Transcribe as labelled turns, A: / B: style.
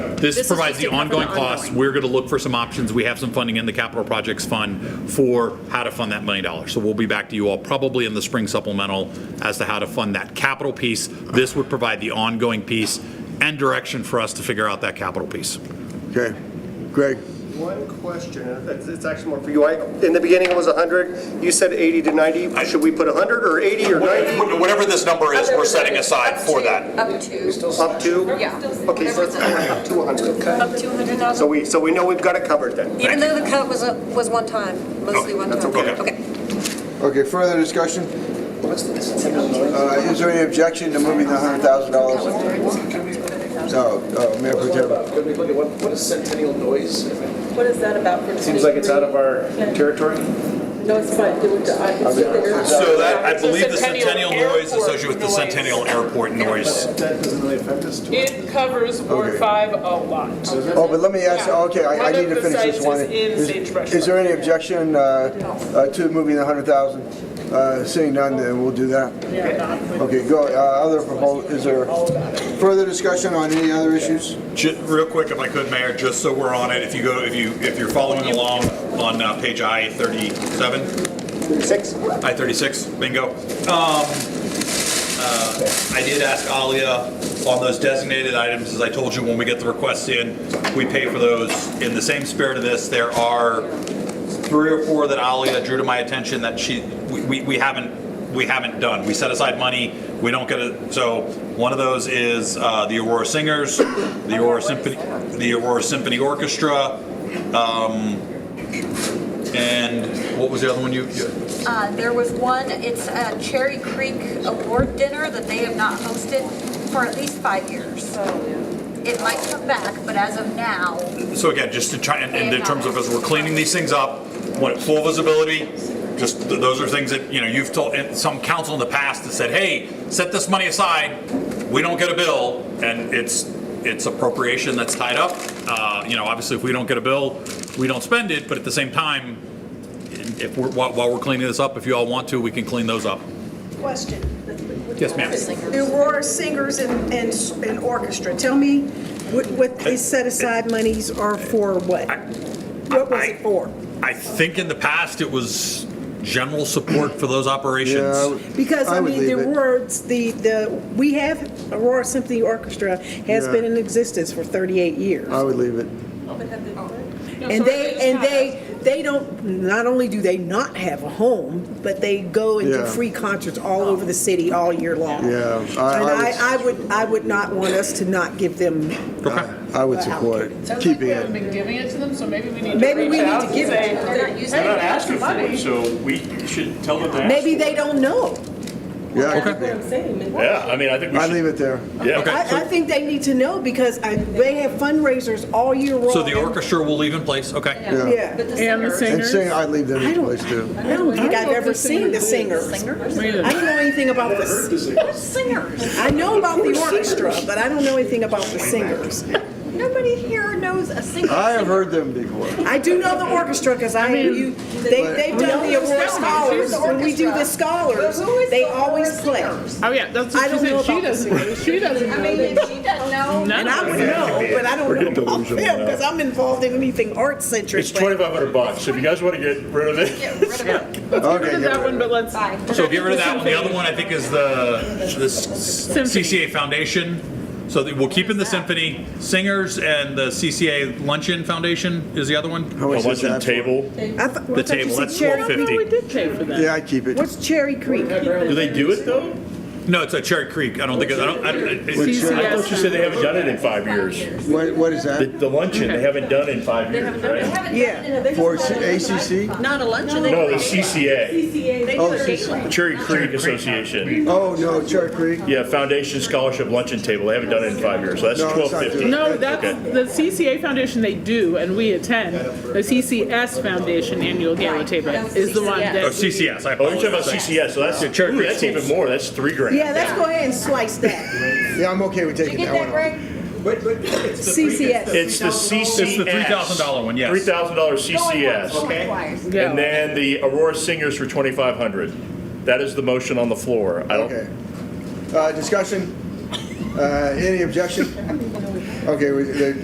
A: This
B: This is
A: provides
B: just
A: the
B: to cover the
A: ongoing costs.
B: ongoing.
A: We're going to look for some options. We have some funding in the capital projects fund for how to fund that million dollars. So we'll be back to you all probably in the spring supplemental as to how to fund that capital piece. This would provide the ongoing piece and direction for us to figure out that capital piece.
C: Okay, Greg,
D: One question, and it's it's actually more for you. I- In the beginning, it was 100. You said 80 to 90. Should we put 100 or 80 or 90
E: Whatever this number is, we're setting aside for that.
B: Up to,
D: up to?
B: yeah.
D: Okay, so it's up to 100.
B: Up to 100,000?
D: So we, so we know we've got it covered then.
B: Even though the cut was, a- was one time, mostly one
D: that's
B: time.
D: okay.
C: okay, further discussion? Uh, Is there any objection to moving the $100,000? No, uh, Mayor Pro Tem.
F: Could we look at what, what is centennial noise?
G: What is that about? for
F: Seems like it's out of our territory.
G: No, it's fine, do it, I can see the air.
E: So that, I
H: It's a
E: believe the Centennial
H: Centennial
E: noise is
H: Airport
E: associated with the
H: noise.
E: Centennial Airport noise.
F: That doesn't really affect us too much.
H: It covers
C: Okay.
H: Ward Five a lot.
C: Oh, but let me ask,
H: Yeah.
C: okay, I I
H: One
C: need
H: of
C: to
H: the
C: finish this
H: sites
C: one.
H: is in
C: Is-
H: Sagebrush
C: Is there any objection uh, uh, to moving the 100,000? Uh, Seeing none, then we'll do that. Okay, go, uh, other proposal, is there further discussion on any other issues?
E: Ju- Real quick, if I could, Mayor, just so we're on it, if you go, if you, if you're following along on uh, page I thirty-seven,
D: Six?
E: I thirty-six, bingo. Um, uh, I did ask Alia on those designated items, as I told you, when we get the requests in, we pay for those. In the same spirit of this, there are three or four that Alia drew to my attention that she, we, we, we haven't, we haven't done. We set aside money, we don't get it, so one of those is, uh, the Aurora Singers, the Aurora Symphony, the Aurora Symphony Orchestra, um, and what was the other one you, you-
I: Uh, There was one, it's a Cherry Creek Award Dinner that they have not hosted for at least five years.
J: Oh,
I: It might come back, but as of now,
E: So again, just to try, and and in terms of as we're cleaning these things up, what, full visibility? Just, th- those are things that, you know, you've told, and some council in the past that said, hey, set this money aside, we don't get a bill, and it's, it's appropriation that's tied up. Uh, You know, obviously, if we don't get a bill, we don't spend it, but at the same time, if we're, while while we're cleaning this up, if you all want to, we can clean those up.
J: Question.
E: Yes, ma'am.
J: The Aurora Singers and, and and Orchestra, tell me what, what these set aside monies are for what? What was it for?
E: I think in the past, it was general support for those operations.
C: Yeah, I would-
J: Because, I
C: would
J: mean, the
C: leave it.
J: words, the, the, we have, Aurora Symphony Orchestra has
C: Yeah. Uh,
J: been in existence for 38 years.
C: I would leave it.
J: And they, and they, they don't, not only do they not have a home, but they go and do
C: Yeah.
J: free concerts all over the city all year long.
C: Yeah,
J: And
C: I- I would-
J: I, I would, I would not want us to not give them,
C: Uh, I would support
H: Sounds like
C: keeping
H: we haven't
C: it.
H: been giving it to them, so maybe we need to reach out
J: Maybe we need to
H: and
J: give it
H: say,
J: to them.
I: they're not using
H: They're not
I: it.
H: asking for it,
F: so we should tell them to
J: maybe they don't know.
C: Yeah, I could be.
K: Yeah, I mean, I think we
C: I'd
K: should,
C: leave it there.
K: yeah.
J: I, I think they need to know because I, they have fundraisers all year long.
E: So the orchestra will leave in place, okay?
J: Yeah.
I: but the
H: And the
I: singers.
C: And
H: singers.
C: saying I'd leave them
J: I
C: in
J: don't-
C: place too.
J: I don't think I've ever seen the singers.
I: Singers?
J: I don't know anything about the,
I: Singers.
J: I know about the orchestra, but I don't know anything about the singers.
I: Nobody here knows a single.
C: I have
I: singer.
C: heard them before.
J: I do know the orchestra because I, you, they, they've done the award scholars. When we do the scholars,
I: Who is
J: they
I: the
J: always
I: Aurora
J: play.
I: Singers?
H: Oh, yeah, that's
J: I
H: what she
J: don't know
H: said,
J: about the
H: she doesn't, she doesn't
I: I
H: know.
I: mean, if she doesn't know.
H: None
J: And
H: of
J: I
H: them.
J: would know, but I
K: We're
J: don't
K: getting
J: know about
K: delusional
J: them
K: now.
J: because I'm involved in anything art centric.
K: It's 2,500 bucks. If you guys want to get rid of it,
I: Get rid of it.
H: Get rid
C: Okay,
H: of
C: get rid
H: that one,
C: of it.
H: but let's.
I: Bye.
E: So get rid of that one. The other one I think is the, the s-
H: Symphony.
E: CCA Foundation. So that- we'll keep in the symphony, singers and the CCA Luncheon Foundation is the other one.
C: How
K: a
C: much is
K: luncheon
C: that for?
K: table.
J: The
E: table, that's
H: No,
E: 150.
H: Oh, we did pay for that.
C: Yeah, I'd keep it.
J: What's Cherry Creek?
K: Do they do it though?
E: No, it's at Cherry Creek. I don't think, it- I don't, I don't- it-
K: I thought you
H: CCS.
K: said they haven't done it in five years.
C: What, what is
K: The,
C: that?
K: the luncheon, they haven't done in five years, right?
J: Yeah.
C: For ACC?
G: Not a luncheon.
K: No, the CCA,
C: Oh, CCA.
K: Cherry Creek Association.
C: Oh, no, Cherry Creek?
K: Yeah, Foundation Scholarship Luncheon Table. They haven't done it in five years, so that's
C: No, it's not
K: twelve fifty.
C: doing it.
H: No, that's, the CCA Foundation, they do, and we attend. The CCS Foundation Annual Gala Table is the one
E: oh,
H: that.
E: CCS, I
K: Oh, you're talking about
E: apologize.
K: CCS, so that's,
E: Cherry
K: ooh, that's
E: Creek.
K: even more. That's three grand.
J: Yeah, let's go ahead and slice that.
C: Yeah, I'm okay with
I: You
C: taking
I: get
C: that one
I: that,
C: off.
I: Greg?
J: CCS.
K: It's the CCS.
E: It's the $3,000 one, yes.
K: Three thousand dollar CCS.
I: Going once, going twice.
K: And then the Aurora Singers for 2,500. That is the motion on the floor. I don't,
C: Okay. Uh, discussion? Uh, any objection? Okay, we, the,